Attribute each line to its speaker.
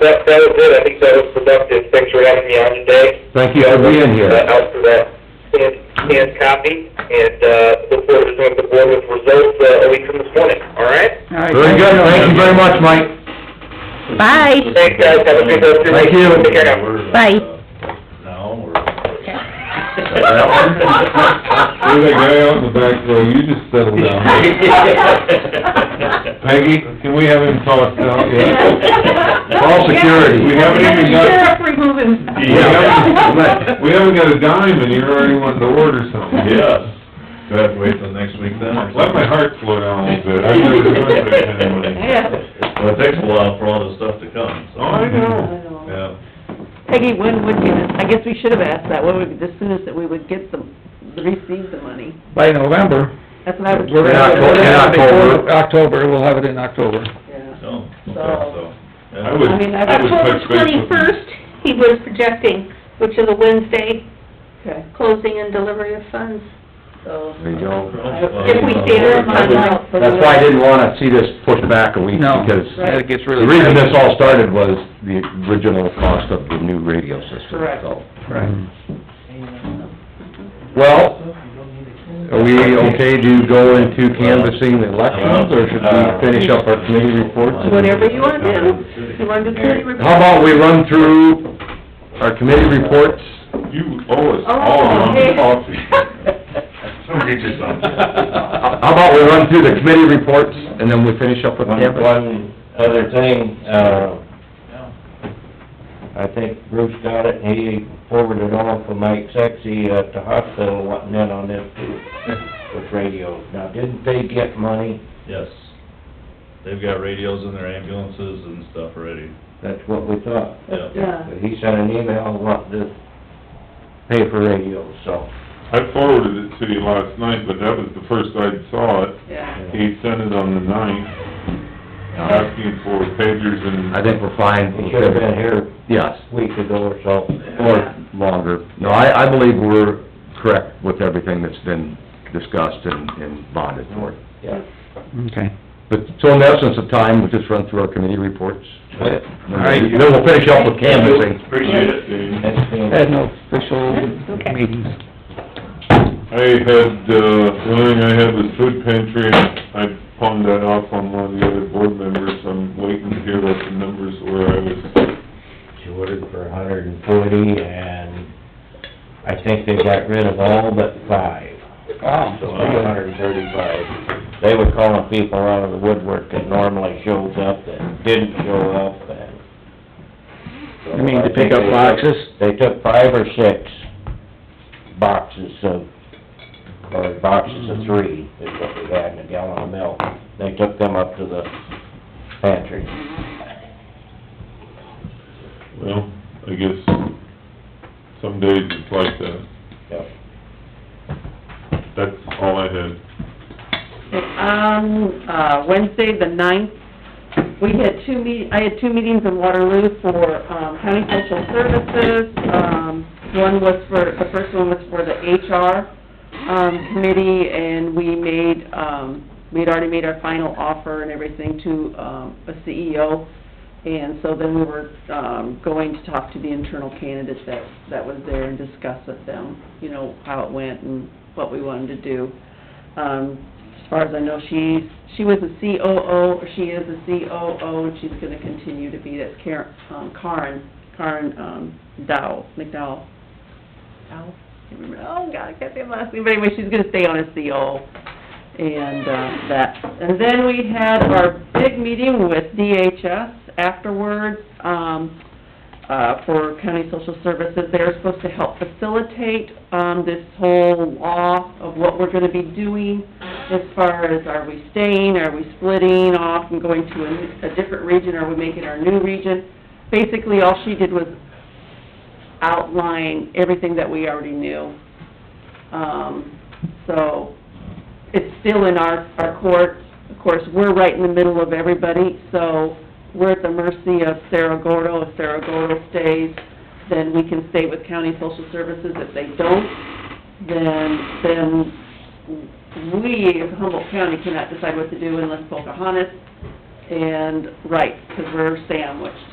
Speaker 1: that, that was it, I think that was productive, thanks for having me on today.
Speaker 2: Thank you for being here.
Speaker 1: Uh, Out for that scanned, scanned copy, and, uh, look forward to doing the board with results, uh, a week from this morning, all right?
Speaker 3: All right,
Speaker 2: Very
Speaker 3: thank
Speaker 2: good,
Speaker 3: you.
Speaker 2: thank you very much, Mike.
Speaker 4: Bye.
Speaker 1: Thanks, guys, have a good rest of your
Speaker 2: Thank
Speaker 1: week.
Speaker 2: you.
Speaker 1: Take care now.
Speaker 4: Bye.
Speaker 5: No, we're...
Speaker 6: You're the guy out in the back row, you just settle down. Peggy, can we have him tossed out yet?
Speaker 2: Call security.
Speaker 6: We haven't even got,
Speaker 3: Sheriff removing.
Speaker 6: we haven't, we haven't got a dime and you're already wanting to order something.
Speaker 5: Yes. Go ahead, wait till next week then. or
Speaker 6: Let my heart slow down a little bit. I never do it like that anyway.
Speaker 5: Well, it takes a while for all this stuff to come, so.
Speaker 6: Oh, I know.
Speaker 5: Yeah.
Speaker 3: Peggy, when would you, I guess we should have asked that, when would, the soonest that we would get the, receive the money?
Speaker 7: by November.
Speaker 3: That's what I would.
Speaker 7: We're gonna have it
Speaker 2: In October.
Speaker 7: before October, we'll have it in October.
Speaker 3: Yeah.
Speaker 5: So, okay,
Speaker 3: So-
Speaker 5: so. yeah.
Speaker 6: I would,
Speaker 3: I mean,
Speaker 6: I would
Speaker 4: October
Speaker 6: touch base with him.
Speaker 4: twenty-first, he was projecting, which is a Wednesday,
Speaker 3: Okay,
Speaker 4: closing and delivery of funds.
Speaker 3: so.
Speaker 2: There you go.
Speaker 4: If we stay there on time.
Speaker 2: That's why I didn't wanna see this pushed back a week,
Speaker 7: No,
Speaker 2: because
Speaker 7: that gets
Speaker 2: the
Speaker 7: really...
Speaker 2: reason this all started was the original cost of the new radio system,
Speaker 3: Correct.
Speaker 2: so.
Speaker 7: Right.
Speaker 2: Well, are we okay to go into canvassing the elections, or should
Speaker 6: Uh,
Speaker 2: we finish up our committee reports?
Speaker 3: Whatever you wanna do, you wanna do committee report?
Speaker 2: How about we run through our committee reports?
Speaker 6: You owe us all
Speaker 3: Oh, okay.
Speaker 6: one coffee.
Speaker 5: Somebody get you
Speaker 2: How about we run through the committee reports, and then we finish up with
Speaker 8: One,
Speaker 2: canvassing?
Speaker 8: one other thing, uh, I think Bruce got it, and he forwarded on for Mike Sexy at the hospital, wanting in on this too, with radios. Now, didn't they get money?
Speaker 5: Yes. They've got radios in their ambulances and stuff already,
Speaker 8: That's what we thought.
Speaker 5: yeah.
Speaker 3: Yeah,
Speaker 8: But he sent an email wanting to pay for radios, so.
Speaker 6: I forwarded it to you last night, but that was the first I saw it.
Speaker 3: yeah.
Speaker 6: He sent it on the ninth, asking for pagers and
Speaker 2: I think we're fine.
Speaker 8: He should've been here
Speaker 2: Yes,
Speaker 8: a week ago or so.
Speaker 2: or longer. No, I, I believe we're correct with everything that's been discussed and, and bonded for.
Speaker 8: Yeah.
Speaker 7: Okay.
Speaker 2: But, so in the essence of time, we'll just run through our committee reports.
Speaker 8: Yep.
Speaker 2: All right. Then we'll finish up with canvassing.
Speaker 6: Appreciate it. Dave.
Speaker 8: That's been-
Speaker 7: Had no official meetings.
Speaker 6: I had, uh, the only thing I had was food pantry, and I pawned that off on one of the other board members, I'm waiting to hear what the numbers were, I was,
Speaker 8: She ordered for a hundred and forty, and I think they got rid of all but five.
Speaker 2: Oh.
Speaker 7: Wow.
Speaker 8: So, a hundred and thirty-five. They were calling people out of the woodwork that normally shows up, that didn't show up, and... so
Speaker 7: You mean
Speaker 8: I
Speaker 7: to pick
Speaker 8: think
Speaker 7: up
Speaker 8: they took-
Speaker 7: boxes?
Speaker 8: They took five or six boxes of, or boxes of three, is what we had in a gallon of milk. They took them up to the pantry.
Speaker 6: well, I guess some days it's like that.
Speaker 8: Yep.
Speaker 6: That's all I had.
Speaker 3: On, uh, Wednesday, the ninth, we had two meet, I had two meetings in Waterloo for, um, county social services. Um, one was for, the first one was for the HR, um, committee, and we made, um, we had already made our final offer and everything to, um, a CEO. And so then we were, um, going to talk to the internal candidates that, that was there and discuss with them, you know, how it went and what we wanted to do. Um, as far as I know, she's, she was a COO, or she is a COO, and she's gonna continue to be, that's Karen, um, Karen, Karen, um, Dow, McDowell. Dow? Can't remember. Oh, God, I can't say her last name, but anyway, she's gonna stay on as COO, and, uh, that. And then we had our big meeting with DHS afterwards, um, uh, for county social services. They're supposed to help facilitate, um, this whole law of what we're gonna be doing as far as are we staying, are we splitting off and going to a, a different region, are we making our new region? Basically, all she did was outline everything that we already knew. Um, so, it's still in our, our court. Of course, we're right in the middle of everybody, so we're at the mercy of Cerro Gordo. If Cerro Gordo stays, then we can stay with county social services. If they don't, then, then we, as Humboldt County, cannot decide what to do unless Pocahontas and Wright, because we're sandwiched.